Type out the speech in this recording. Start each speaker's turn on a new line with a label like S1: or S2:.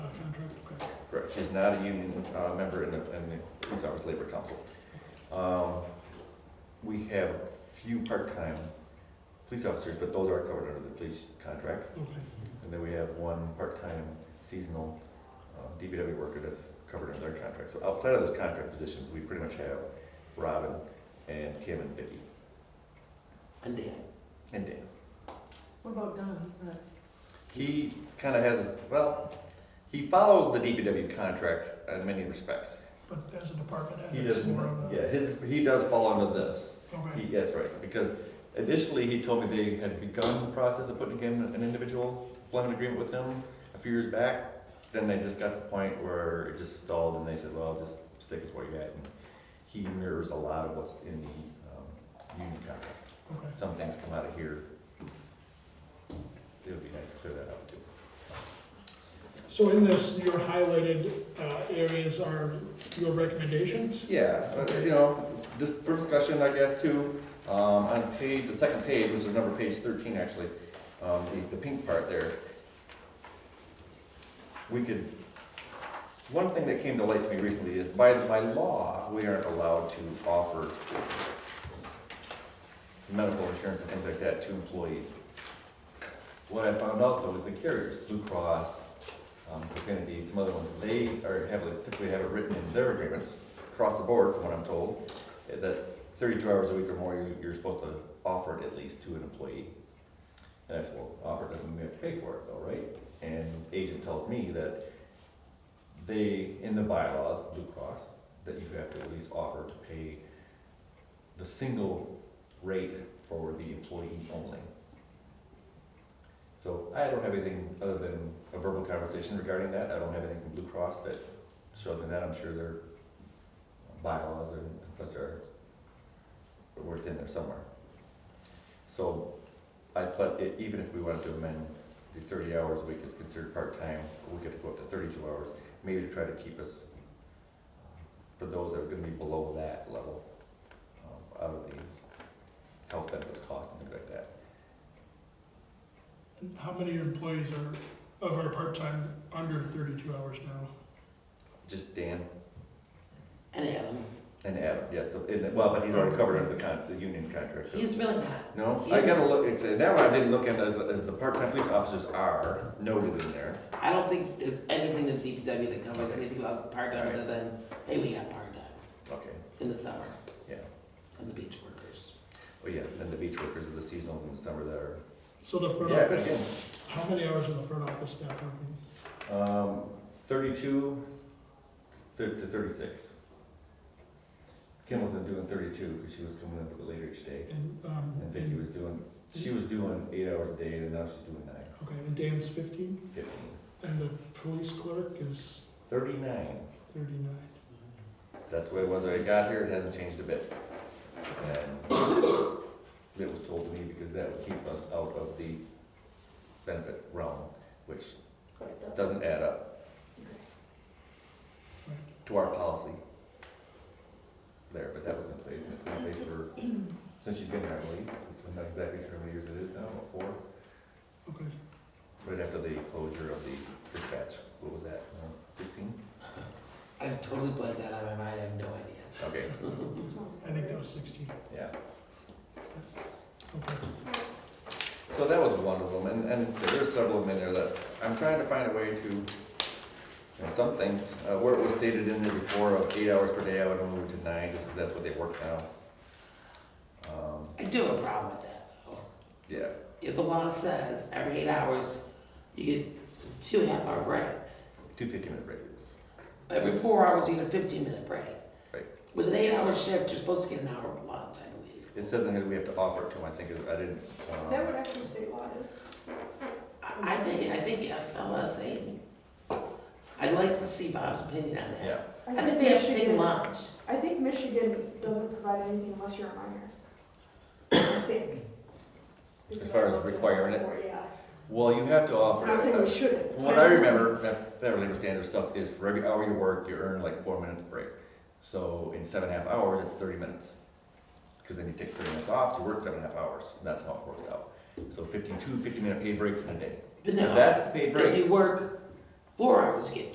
S1: She's not a union uh, member in the, in the Police Hours Labor Council. Um, We have few part-time police officers, but those are covered under the police contract. And then we have one part-time seasonal uh, DPW worker that's covered under their contract. So outside of those contract positions, we pretty much have Robin and Kim and Vicky
S2: And Dan.
S1: and Dan.
S3: What about Don, he's not,
S1: He kind of has, well, he follows the DPW contract in many respects.
S4: But as a department
S1: He
S4: head, it's
S1: does,
S4: more of a.
S1: yeah, his, he does fall under this.
S4: Okay,
S1: He, that's right, because initially he told me they had begun the process of putting in an individual employment agreement with him a few years back. Then they just got to the point where it just stalled and they said, well, just stick with what you got. And He mirrors a lot of what's in the, um, union contract.
S4: okay.
S1: Some things come out of here. It would be nice to clear that up too.
S4: So in this, your highlighted uh, areas are your recommendations?
S1: Yeah, but, you know, just for discussion, I guess, too, um, on page, the second page, which is number page thirteen, actually, um, the, the pink part there. We could, one thing that came to light to me recently is by, by law, we aren't allowed to offer medical insurance and things like that to employees. What I found out though is the carriers, Blue Cross, um, Affinity, some other ones, they are heavily, typically have it written in their agreements, across the board, from what I'm told, eh, that thirty-two hours a week or more, you- you're supposed to offer it at least to an employee. And I said, well, offer doesn't mean we have to pay for it though, right? And the agent tells me that they, in the bylaws, Blue Cross, that you have to at least offer to pay the single rate for the employee only. So I don't have anything other than a verbal conversation regarding that. I don't have anything from Blue Cross that shows me that. I'm sure their bylaws and such are, or it's in there somewhere. So I, but i- even if we wanted to amend the thirty hours a week is considered part-time, we could go up to thirty-two hours, maybe to try to keep us, for those that are gonna be below that level, um, out of the health benefits cost and things like that.
S4: And How many employees are, of our part-time, under thirty-two hours now?
S1: Just Dan,
S2: And Adam.
S1: And Adam, yes, the- and- well, but he's already covered under the con, the union contract.
S2: He's really not.
S1: No, I gotta look, it's, that one I didn't look at as, as the part-time police officers are noted in there.
S2: I don't think there's anything in DPW that covers
S1: Okay.
S2: anything about part-time other than, hey, we got part-time
S1: Okay.
S2: in the summer.
S1: Yeah.
S2: And the beach workers.
S1: Oh, yeah, and the beach workers are the seasonals in the summer that are.
S4: So the front
S1: Yeah, but
S4: office, how many hours are the front office staff working?
S1: again, Um, thirty-two thir- to thirty-six. Kim wasn't doing thirty-two, because she was coming up a bit later each day,
S4: And, um,
S1: and Vicky
S4: and,
S1: was doing, she was doing eight hours a day, and now she's doing nine,
S4: okay, and Dan's fifteen,
S1: fifteen.
S4: and the police clerk is
S1: Thirty-nine,
S4: thirty-nine.
S1: that's the way it was when I got here, it hasn't changed a bit. And it was told to me because that would keep us out of the benefit realm, which doesn't add up
S4: Right.
S1: to our policy there, but that was in place, and it's been in place for, since you've been here, I believe. I'm not exactly sure how many years it is now, what, four?
S4: Okay,
S1: Right after the closure of the dispatch, what was that, sixteen?
S2: I totally blanked that out of my mind, I have no idea.
S1: Okay,
S4: I think that was sixteen,
S1: yeah.
S4: okay.
S1: So that was one of them, and, and there are several of them in there that, I'm trying to find a way to, you know, some things, uh, where it was stated in there before of eight hours per day, I would move it to nine, just 'cause that's what they work now. Um,
S2: I do have a problem with that, though.
S1: yeah,
S2: If the law says every eight hours, you get two half-hour breaks.
S1: two fifty-minute breaks.
S2: Every four hours, you get a fifteen-minute break.
S1: Right.
S2: With an eight-hour shift, you're supposed to get an hour lunch, I believe.
S1: It says in here we have to offer it to them, I think, it- I didn't. um,
S3: is that what actual state law is?
S2: I I think, I think FLSA, I'd like to see Bob's opinion on that.
S1: Yeah,
S2: I think they have to take
S3: Michigan-
S2: lunch.
S3: I think Michigan doesn't provide anything unless you're a minor. I think.
S1: As far as requiring it?
S3: Or, Yeah,
S1: well, you have to
S3: I'm
S1: offer.
S3: not saying
S1: it. uh,
S3: we shouldn't.
S1: From what I remember, that Federal Labor Standard stuff is for every hour you work, you earn like four minutes break. So in seven and a half hours, it's thirty minutes. Because then you take thirty minutes off to work seven and a half hours, and that's how it works out. So 52 50 minute paid breaks in a day.
S2: But
S1: If
S2: no,
S1: That's the paid breaks.
S2: if you work four hours, you get